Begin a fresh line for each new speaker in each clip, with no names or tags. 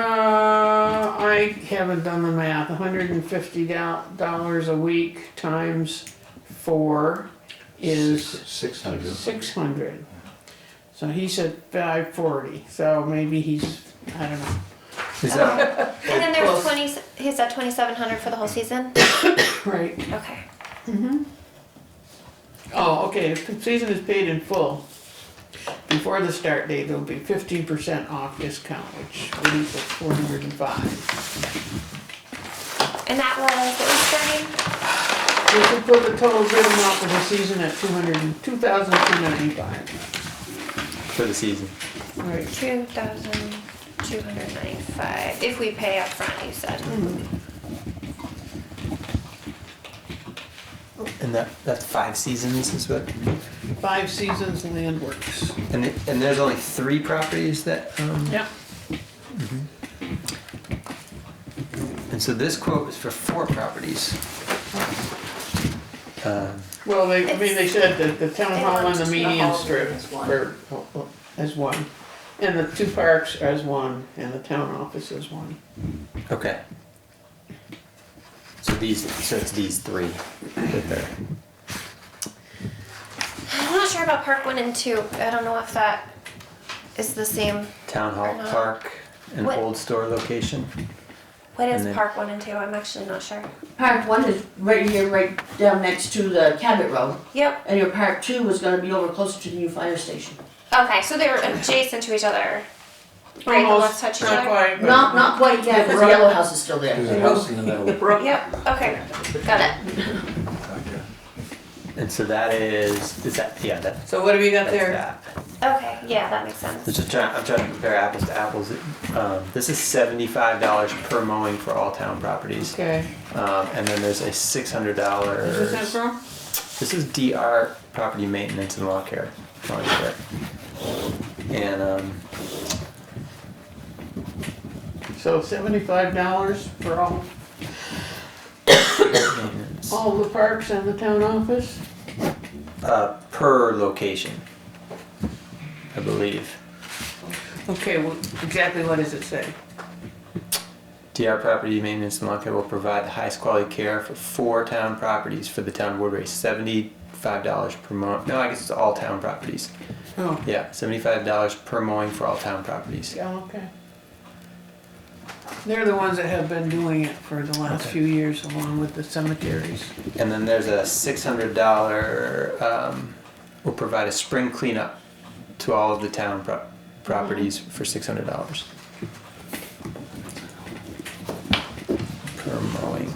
Uh, I haven't done the math, hundred and fifty dollars a week times four is
Six hundred.
six hundred. So he said five forty, so maybe he's, I don't know,
Is that
And then there's twenty. He said twenty-seven hundred for the whole season.
Mm-hmm.
right?
Okay.
Oh, okay, if the season is paid in full, before the start date, there'll be fifteen percent off discount, which would equal four hundred and five.
And that was what was starting.
We could put the total bid amount for the season at two hundred and, two thousand two ninety-five,
for the season?
right?
Two thousand two hundred ninety-five. If we pay up front, you said.
Mm-hmm. And that that's five seasons is what.
Five Seasons Land Works.
And it, and there's only three properties that. Um,
Yep.
And so this quote is for four properties. Um,
Well, they, I mean, they said that the town
They
hall
want
and the
the
median
hall
strip
as one.
were, oh, oh, as one. And the two parks as one, and the town office as one.
okay. So these so it's these three that they're.
I'm not sure about Park One and Two. I don't know if that is the same.
Town Hall
Uh-huh.
Park, an
What-
old store location.
What is
And then-
Park One and Two? I'm actually not sure.
Park one is right here, right down next to the Cabot Road,
Yep.
and your park two is gonna be over closer to the new fire station.
Okay, so they were adjacent to each other. Right, the
Almost,
left touch each
not
other.
quite, but-
Not, not quite yet, because the yellow house is still
There's
there.
a house in the middle.
Ro-
Yep. Okay. Got it.
And so that is is that yeah that,
So what have you got
that's
there?
that.
Okay. Yeah, that makes sense.
So just trying, I'm trying to compare apples to apples. Um, this is seventy-five dollars per mowing for all town properties,
Okay.
um, and then there's a six hundred
Is
dollars.
this it, bro?
This is DR property maintenance and lawn care, lawn care. And um,
So seventy-five dollars for all,
maintenance,
all the parks and the town office?
uh, per location, I believe.
Okay, well, exactly what does it say?
DR Property Maintenance and Lawn Care will provide the highest quality care for four town properties for the town of Woodbury, seventy-five dollars per month. No, I guess it's all town properties.
Oh,
Yeah, seventy-five dollars per mowing for all town properties.
yeah, okay. They're the ones that have been doing it for the last
Okay.
few years along with the cemeteries.
And then there's a six hundred dollar. Um, we'll provide a spring cleanup to all of the town pro- properties for six hundred dollars per mowing.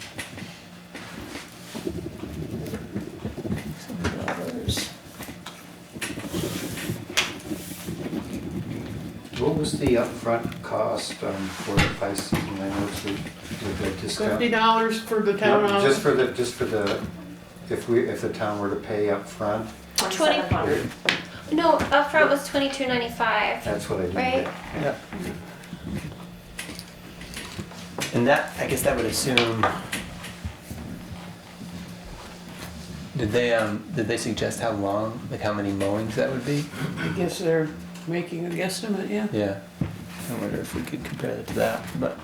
$600.
What was the upfront cost um, for the five season landlords with with the
Fifty
discount?
dollars for the town
No, Just
office,
for the, just for the, if we, if the town were to pay upfront,
Twenty. No, upfront was twenty-two ninety-five.
that's what I did.
Right.
Yeah. And that, I guess that would assume. Did they um did they suggest how long, like how many mowings that would be?
I guess they're making a guesstimate, yeah.
Yeah. I wonder if we could compare it to that, but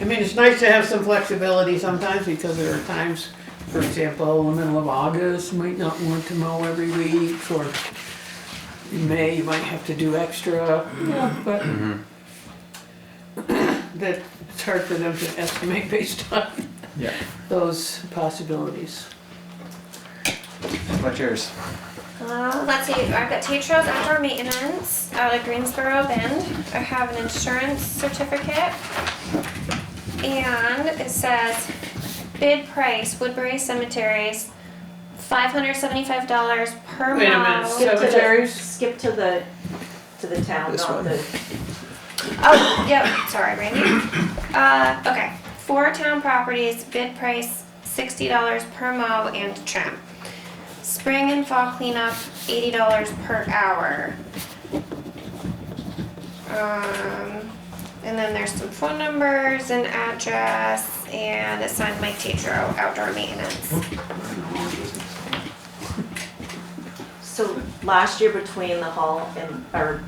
I mean, it's nice to have some flexibility sometimes because there are times, for example, in the middle of August, you might not want to mow every week or in May, you might have to do extra, yeah, but that, it's hard for them to estimate based on
yeah.
those possibilities.
What's yours?
Uh, let's see, I've got Tetro's outdoor maintenance out of Greensboro Bend. I have an insurance certificate. And it says bid price Woodbury Cemeteries, five hundred seventy-five dollars per
Wait a minute,
mile.
so-
Skip to the-
Cemeteries?
Skip to the, to the town,
This one.
not the
Oh, yep, sorry, Randy. Uh, okay, four town properties, bid price sixty dollars per mow and trim. Spring and fall cleanup, eighty dollars per hour. Um, and then there's some phone numbers and address, and it's signed Mike Tetro, outdoor maintenance.
So last year between the hall and, or